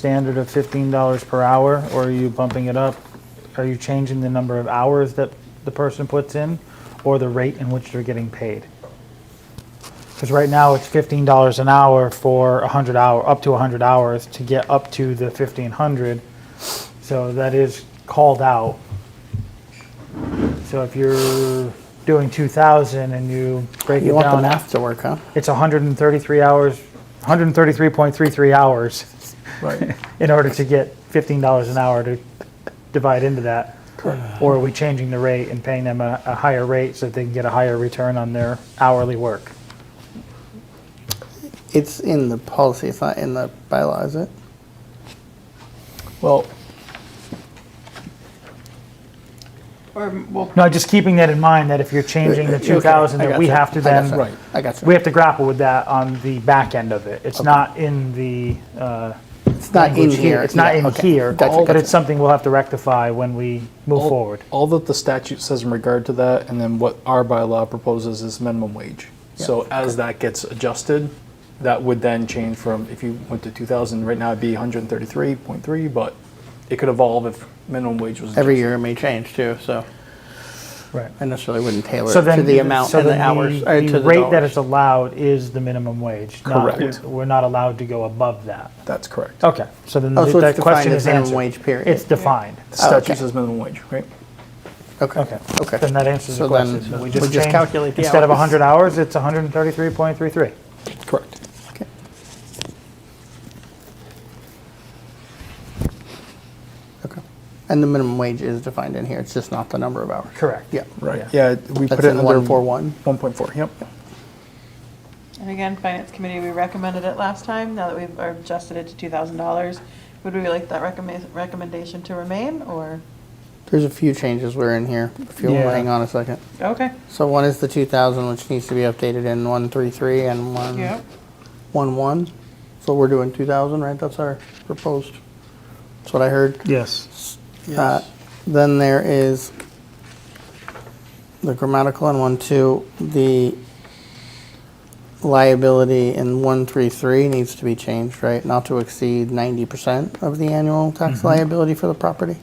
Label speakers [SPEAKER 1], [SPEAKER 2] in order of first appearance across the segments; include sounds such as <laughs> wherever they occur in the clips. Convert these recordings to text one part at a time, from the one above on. [SPEAKER 1] standard of fifteen dollars per hour, or are you bumping it up? Are you changing the number of hours that the person puts in, or the rate in which they're getting paid? Because right now, it's fifteen dollars an hour for a hundred hour, up to a hundred hours to get up to the fifteen hundred. So that is called out. So if you're doing two thousand and you break it
[SPEAKER 2] You want
[SPEAKER 1] down
[SPEAKER 2] them
[SPEAKER 1] after.
[SPEAKER 2] after work, huh?
[SPEAKER 1] It's 133 hours, 133.33 hours
[SPEAKER 2] Right.
[SPEAKER 1] in order to get $15 an hour to divide into that. Or are we changing the rate and paying them a, a higher rate so that they can get a higher return on their hourly work?
[SPEAKER 2] <laughs> It's in the policy, it's not in the bylaw, is it?
[SPEAKER 3] Well,
[SPEAKER 2] Or, well.
[SPEAKER 1] No, just keeping that in mind that if you're changing
[SPEAKER 2] Uh,
[SPEAKER 1] the 2,000, that we have to then,
[SPEAKER 3] Right.
[SPEAKER 2] I got you.
[SPEAKER 1] we have to grapple with that on the back end of it. It's not in the, uh,
[SPEAKER 2] It's not in
[SPEAKER 1] language
[SPEAKER 2] here.
[SPEAKER 1] It's not
[SPEAKER 2] Yeah,
[SPEAKER 1] in
[SPEAKER 2] okay.
[SPEAKER 1] here, but
[SPEAKER 2] Gotcha, gotcha. Oh.
[SPEAKER 1] it's something we'll have to rectify when we move
[SPEAKER 3] all-
[SPEAKER 1] forward.
[SPEAKER 3] All that the statute says in regard to that, and then what our bylaw proposes is minimum wage. So as that gets adjusted, that would then change from, if you went to two thousand, right now it'd be hundred and thirty-three point three, but it could evolve if minimum wage was.
[SPEAKER 2] Every
[SPEAKER 3] adjusted.
[SPEAKER 2] year it may change too, so
[SPEAKER 1] Right.
[SPEAKER 2] I necessarily wouldn't tailor
[SPEAKER 1] So
[SPEAKER 2] it to
[SPEAKER 1] then,
[SPEAKER 2] the amount
[SPEAKER 1] so
[SPEAKER 2] and the
[SPEAKER 1] then
[SPEAKER 2] hours, or to
[SPEAKER 1] The
[SPEAKER 2] the
[SPEAKER 1] rate that
[SPEAKER 2] dollars.
[SPEAKER 1] is allowed is the minimum wage. not-
[SPEAKER 3] Correct.
[SPEAKER 1] We're not allowed to go above that.
[SPEAKER 3] That's correct. The
[SPEAKER 1] Okay, so then
[SPEAKER 2] Oh, so
[SPEAKER 1] that
[SPEAKER 2] it's defined
[SPEAKER 1] question
[SPEAKER 2] as
[SPEAKER 1] is
[SPEAKER 2] minimum
[SPEAKER 1] answered.
[SPEAKER 2] wage period?
[SPEAKER 1] It's defined.
[SPEAKER 2] okay.
[SPEAKER 3] statute says minimum wage, right?
[SPEAKER 1] Okay.
[SPEAKER 2] Okay.
[SPEAKER 1] Then that answers the
[SPEAKER 2] So then
[SPEAKER 1] question.
[SPEAKER 2] we just
[SPEAKER 1] changed-
[SPEAKER 2] calculate the
[SPEAKER 1] Instead of
[SPEAKER 2] hours.
[SPEAKER 1] 100 hours, it's 133.33.
[SPEAKER 3] Correct.
[SPEAKER 2] Okay. Okay. And the minimum wage is defined in here, it's just not the number of hours.
[SPEAKER 1] Correct.
[SPEAKER 2] Yeah.
[SPEAKER 3] Right, yeah, we put
[SPEAKER 2] That's
[SPEAKER 3] it
[SPEAKER 2] in
[SPEAKER 3] under.
[SPEAKER 2] one four one.
[SPEAKER 3] One point four, yep.
[SPEAKER 4] And again, Finance Committee, we recommended it last time, now that we've adjusted it to $2,000. Would we like that recommend- recommendation to remain, or?
[SPEAKER 2] There's a few changes we're in here, if you'll
[SPEAKER 1] Yeah.
[SPEAKER 2] hang on a second.
[SPEAKER 4] Okay.
[SPEAKER 2] So one is the two thousand, which needs to be updated in one three three and one.
[SPEAKER 4] Yep.
[SPEAKER 2] One one, so we're doing two thousand, right? That's our proposed. That's what I heard.
[SPEAKER 1] Yes.
[SPEAKER 2] Uh, Then there is the grammatical in one two, the liability in one three three needs to be changed, right? Not to exceed ninety percent of the annual tax
[SPEAKER 1] Mm-hmm.
[SPEAKER 2] liability for the property.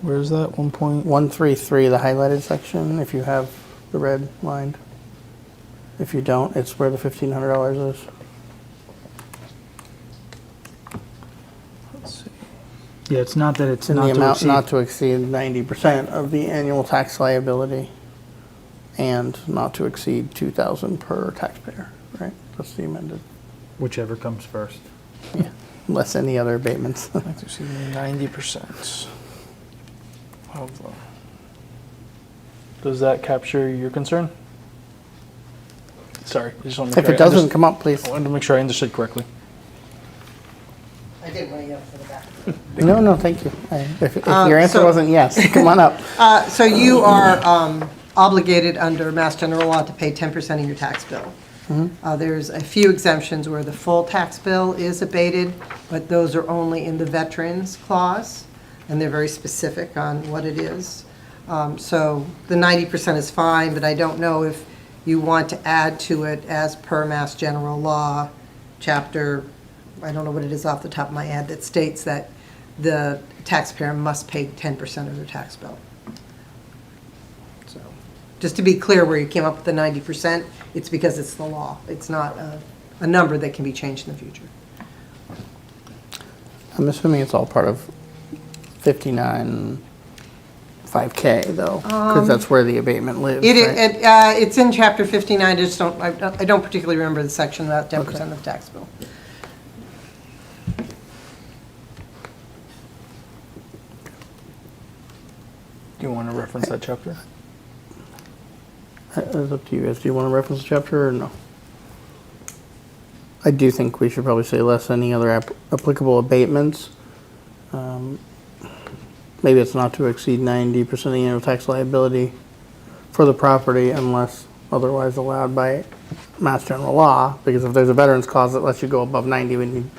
[SPEAKER 3] Where's that, one point?
[SPEAKER 2] One three three, the highlighted section, if you have the red lined. If you don't, it's where the fifteen hundred dollars is.
[SPEAKER 3] let's see.
[SPEAKER 1] Yeah, it's not that it's
[SPEAKER 2] In the amount not to exceed ninety percent of the annual tax liability and not to exceed two thousand per taxpayer, right? That's the amended,
[SPEAKER 1] whichever comes first.
[SPEAKER 2] unless any other abatements. <laughs>
[SPEAKER 3] Like to see ninety percent of the. Does that capture your concern? Sorry, I just want to.
[SPEAKER 2] If it doesn't, come up, please.
[SPEAKER 3] I wanted to make sure I understood correctly.
[SPEAKER 5] I did want to yell for the back.
[SPEAKER 2] No, no, thank you. I- If, if
[SPEAKER 5] Uh,
[SPEAKER 2] your answer
[SPEAKER 5] so-
[SPEAKER 2] wasn't yes, come on up.
[SPEAKER 5] Uh, So you are um, obligated under Mass General Law to pay 10% of your tax bill. Uh, There's a few exemptions where the full tax bill is abated, but those are only in the Veterans Clause, and they're very specific on what it is. Um, So the 90% is fine, but I don't know if you want to add to it as per Mass General Law, Chapter, I don't know what it is off the top of my head, that states that the taxpayer must pay 10% of their tax bill. So, just to be clear where you came up with the ninety percent, it's because it's the law. It's not a, a number that can be changed in the future.
[SPEAKER 2] I'm assuming it's all part of fifty-nine, five K though, because that's where the abatement lives,
[SPEAKER 5] It,
[SPEAKER 2] right?
[SPEAKER 5] it, uh, it's in chapter fifty-nine, I just don't, I don't- I don't particularly remember the section about ten percent of the tax bill.
[SPEAKER 3] Do you want to reference that chapter?
[SPEAKER 2] Uh, It's up to you guys. Do you want to reference the chapter or no? I do think we should probably say less any other app- applicable abatements. Um, Maybe it's not to exceed ninety percent of the annual tax liability for the property unless otherwise allowed by mass general law. Because if there's a veterans clause that lets you go above ninety, we need,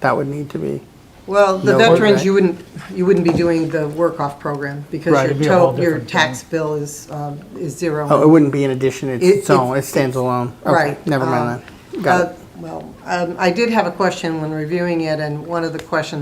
[SPEAKER 2] that would need to be.
[SPEAKER 5] Well,
[SPEAKER 2] No,
[SPEAKER 5] the
[SPEAKER 2] what-
[SPEAKER 5] veterans, you wouldn't, you wouldn't be doing the work-off program
[SPEAKER 1] Right,
[SPEAKER 5] because your
[SPEAKER 1] it'd be a whole
[SPEAKER 5] to, your
[SPEAKER 1] different thing.
[SPEAKER 5] tax bill is, um, is zero.
[SPEAKER 2] Oh, it wouldn't be in addition, it's
[SPEAKER 5] It-
[SPEAKER 2] its own, it
[SPEAKER 5] it's-
[SPEAKER 2] stands alone. Okay,
[SPEAKER 5] Right,
[SPEAKER 2] Never
[SPEAKER 5] um,
[SPEAKER 2] mind that. Got
[SPEAKER 5] Uh,
[SPEAKER 2] it.
[SPEAKER 5] Well, um, I did have a question when reviewing it, and one of the questions